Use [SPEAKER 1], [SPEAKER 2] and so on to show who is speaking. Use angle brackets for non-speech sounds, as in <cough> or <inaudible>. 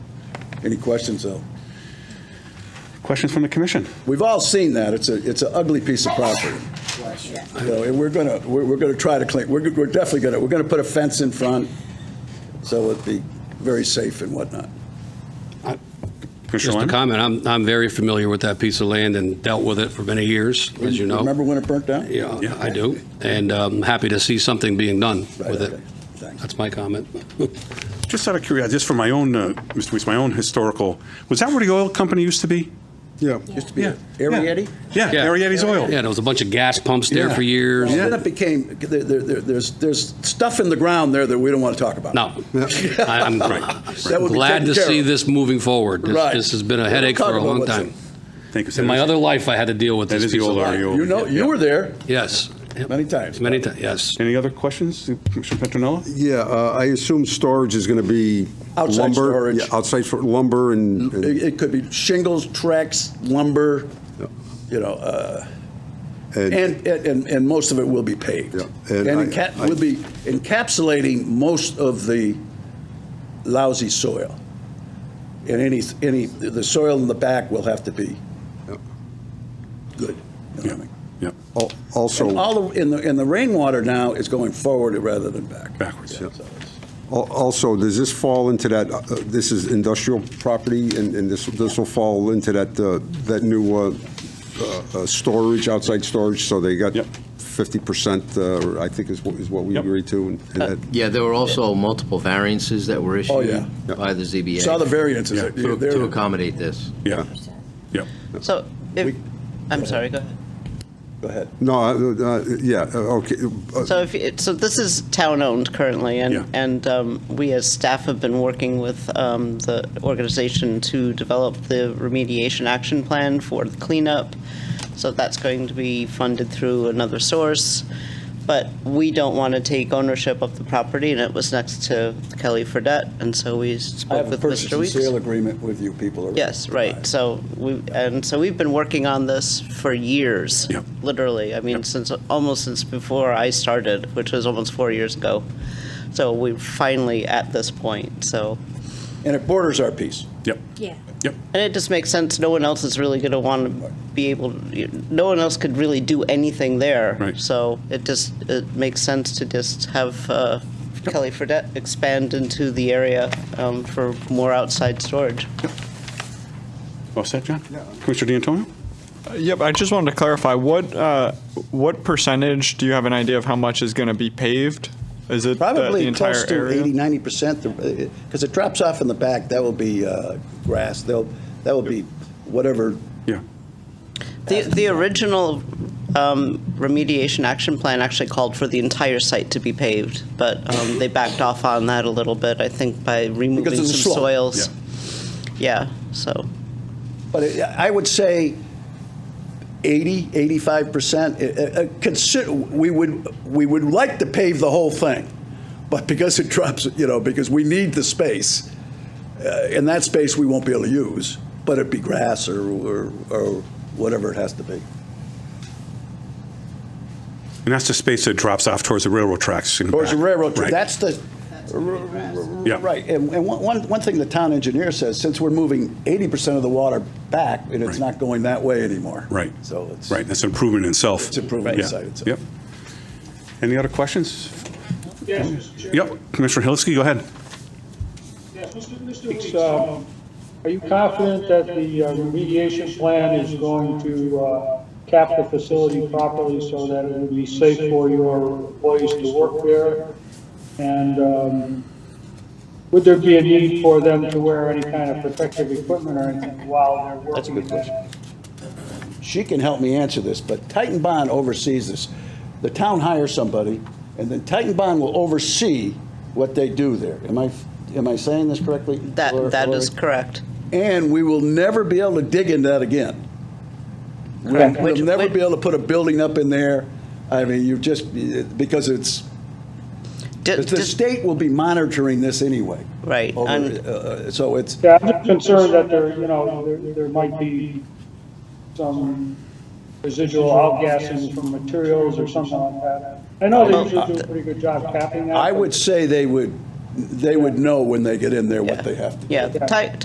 [SPEAKER 1] Any questions, though?
[SPEAKER 2] Questions from the commission?
[SPEAKER 1] We've all seen that. It's a, it's an ugly piece of property. You know, and we're gonna, we're, we're gonna try to clean, we're, we're definitely gonna, we're gonna put a fence in front, so it'd be very safe and whatnot.
[SPEAKER 2] Commissioner
[SPEAKER 3] Just a
[SPEAKER 2] Lyon?
[SPEAKER 3] comment, I'm, I'm very familiar with that piece of land and dealt with it for many years, as you know.
[SPEAKER 1] Remember when it burnt down?
[SPEAKER 3] Yeah, I do, and I'm happy to see something being done
[SPEAKER 1] Right,
[SPEAKER 3] with it.
[SPEAKER 1] okay. Thanks.
[SPEAKER 3] That's
[SPEAKER 1] <laughs>
[SPEAKER 3] my comment.
[SPEAKER 2] Just out of curiosity, just for my own, uh, Mr. Weiss, my own historical, was that where the oil company used to be?
[SPEAKER 4] Yeah.
[SPEAKER 1] Used to be
[SPEAKER 2] Yeah.
[SPEAKER 1] Ariety?
[SPEAKER 2] Yeah,
[SPEAKER 3] Yeah.
[SPEAKER 2] Marietta's Oil.
[SPEAKER 3] Yeah, there was a bunch of gas pumps there for years.
[SPEAKER 1] Well, Then it became, there, there, there- there's, there's stuff in the ground there that we don't want to talk about.
[SPEAKER 3] No, <laughs> I-
[SPEAKER 1] <laughs>
[SPEAKER 3] I'm
[SPEAKER 1] That would be
[SPEAKER 3] glad
[SPEAKER 1] taken
[SPEAKER 3] to
[SPEAKER 1] care
[SPEAKER 3] see
[SPEAKER 1] of.
[SPEAKER 3] this moving forward. This-
[SPEAKER 1] Right.
[SPEAKER 3] This has been a
[SPEAKER 1] We'll
[SPEAKER 3] headache
[SPEAKER 1] talk
[SPEAKER 3] for a
[SPEAKER 1] about
[SPEAKER 3] long
[SPEAKER 1] what's
[SPEAKER 3] time.
[SPEAKER 2] Thank you. sir.
[SPEAKER 3] In my other life, I had to deal with
[SPEAKER 2] That
[SPEAKER 3] this
[SPEAKER 2] is the
[SPEAKER 3] piece of
[SPEAKER 2] old
[SPEAKER 3] land.
[SPEAKER 2] REO.
[SPEAKER 1] You know, you were there
[SPEAKER 3] Yes.
[SPEAKER 1] many times.
[SPEAKER 3] Many times, yes.
[SPEAKER 2] Any other questions, Commissioner Petronella?
[SPEAKER 4] Yeah, uh, I assume storage is going to be
[SPEAKER 1] Outside
[SPEAKER 4] lumber.
[SPEAKER 1] storage. Mm-hmm.
[SPEAKER 4] Yeah, outside for lumber and, and-
[SPEAKER 1] It, it could be shingles, tracks, lumber, you know, uh, and, and, and most of it will be paved.
[SPEAKER 4] Yeah,
[SPEAKER 1] And
[SPEAKER 4] and I-
[SPEAKER 1] enca-
[SPEAKER 4] I-
[SPEAKER 1] we'll be encapsulating most of the lousy soil. And any, any, the soil in the back will have to be good. you know what I mean?
[SPEAKER 2] Yep.
[SPEAKER 4] al- also.
[SPEAKER 1] And all, of- and the, and the rainwater now is going forward rather than back.
[SPEAKER 2] Backwards,
[SPEAKER 1] Yeah,
[SPEAKER 2] yeah.
[SPEAKER 1] so it's-
[SPEAKER 4] Al- Also, does this fall into that, uh, uh, this is industrial property, and and this, this will fall into that, uh, that new uh, uh, uh, storage, outside storage, so they got
[SPEAKER 2] Yep.
[SPEAKER 4] 50%, uh, or I think is what, is what we
[SPEAKER 2] Yep.
[SPEAKER 4] agreed to. and-
[SPEAKER 1] Uh,
[SPEAKER 4] and that-
[SPEAKER 5] Yeah, there were also multiple variances that were
[SPEAKER 1] Oh,
[SPEAKER 5] issued
[SPEAKER 1] yeah.
[SPEAKER 5] by the ZBA
[SPEAKER 1] Saw the
[SPEAKER 5] to-
[SPEAKER 1] variances.
[SPEAKER 2] Yeah.
[SPEAKER 1] They're-
[SPEAKER 5] to
[SPEAKER 1] they're-
[SPEAKER 5] accommodate this.
[SPEAKER 2] Yeah. Yep.
[SPEAKER 6] So,
[SPEAKER 1] We-
[SPEAKER 6] if, I'm sorry, go ahead.
[SPEAKER 1] Go ahead.
[SPEAKER 4] No, uh, uh, yeah, uh, okay. uh,
[SPEAKER 6] So if, it- so this is town-owned currently,
[SPEAKER 2] Yeah.
[SPEAKER 6] and, and um, we as staff have been working with um, the organization to develop the remediation action plan for the cleanup. So that's going to be funded through another source, but we don't want to take ownership of the property, and it was next to Kelly Fredette, and so we
[SPEAKER 1] I
[SPEAKER 6] spoke
[SPEAKER 1] have a
[SPEAKER 6] with
[SPEAKER 1] purchase
[SPEAKER 6] Mr.
[SPEAKER 1] and
[SPEAKER 6] Weeks.
[SPEAKER 1] sale agreement with you people. already.
[SPEAKER 6] Yes, right. So we, and so we've been working on this for years,
[SPEAKER 2] Yep.
[SPEAKER 6] literally. I mean, since, almost since before I started, which was almost four years ago. So we're finally at this point, so.
[SPEAKER 1] And it borders our piece.
[SPEAKER 2] Yep.
[SPEAKER 7] Yeah.
[SPEAKER 2] Yep.
[SPEAKER 6] And it just makes sense, no one else is really going to want to be able, no one else could really do anything there.
[SPEAKER 2] Right.
[SPEAKER 6] So it just, it makes sense to just have uh, Kelly Fredette expand into the area um, for more outside storage.
[SPEAKER 2] All set, John? Commissioner D'Antonio?
[SPEAKER 8] Yep, I just wanted to clarify, what, uh, what percentage, do you have an idea of how much is going to be paved? Is it the the
[SPEAKER 1] Probably
[SPEAKER 8] entire
[SPEAKER 1] close to 80,
[SPEAKER 8] area?
[SPEAKER 1] 90%, because uh, it drops off in the back, that will be uh, grass, they'll, that will be whatever,
[SPEAKER 2] Yeah.
[SPEAKER 6] The, the original um, remediation action plan actually called for the entire site to be paved, but um, they backed off on that a little bit, I think, by removing
[SPEAKER 1] Because of
[SPEAKER 6] some
[SPEAKER 1] the slope,
[SPEAKER 6] soils. Yeah, so,
[SPEAKER 1] but it- I would say 80, 85%. uh, uh, Consider, we would, we would like to pave the whole thing, but because it <laughs> drops, you know, because we need the space, uh, and that space we won't be able to use, but it'd be grass or, or or whatever it has to be.
[SPEAKER 2] And that's the space that drops off towards the railroad tracks. in the
[SPEAKER 1] Towards the
[SPEAKER 2] back.
[SPEAKER 1] railroad,
[SPEAKER 2] Right.
[SPEAKER 1] track. that's the,
[SPEAKER 2] Yeah.
[SPEAKER 1] right, and, and one- one, one thing the town engineer says, since we're moving eighty percent of the water back, and it's
[SPEAKER 2] Right.
[SPEAKER 1] not going that way anymore.
[SPEAKER 2] Right.
[SPEAKER 1] So it's.
[SPEAKER 2] Right, that's an improvement in itself.
[SPEAKER 1] It's improvement in
[SPEAKER 2] Yeah.
[SPEAKER 1] sight itself.
[SPEAKER 2] Yep. Any other questions?
[SPEAKER 9] Yes, Mr. Chairman.
[SPEAKER 2] Yep, Commissioner Helisky, go ahead.
[SPEAKER 9] Yes, Mr. Mr. Weeks, um, are you confident that the uh, remediation plan is going to uh, cap the facility properly so that it will be safe for your employees to work there? And um, would there be a need for them to wear any kind of protective equipment or anything while they're working?
[SPEAKER 1] That's a good
[SPEAKER 9] in that
[SPEAKER 1] question. She can help me answer this, but Titan Bond oversees this. The town hires somebody, and then Titan Bond will oversee what they do there. Am I, am I saying this correctly? Lori-
[SPEAKER 6] that, that is
[SPEAKER 1] Lori?
[SPEAKER 6] correct.
[SPEAKER 1] And we will never be able to dig into that again. We'll
[SPEAKER 6] Correct.
[SPEAKER 1] we'll
[SPEAKER 6] Which-
[SPEAKER 1] never
[SPEAKER 6] which-
[SPEAKER 1] be able to put a building up in there. I mean, you just, because it's,
[SPEAKER 6] Di-
[SPEAKER 1] Because the
[SPEAKER 6] di-
[SPEAKER 1] state will be monitoring this anyway.
[SPEAKER 6] Right,
[SPEAKER 1] Over-
[SPEAKER 6] and-
[SPEAKER 1] uh, So it's,
[SPEAKER 9] Yeah, I'm just concerned that there, you know, there, there might be some residual outgassing from materials or something like that. I know they usually do a pretty good job capping that.
[SPEAKER 1] I
[SPEAKER 9] but-
[SPEAKER 1] would say they would, they would know when they get in there
[SPEAKER 6] Yeah.
[SPEAKER 1] what they have to do.
[SPEAKER 6] Yeah, Ti-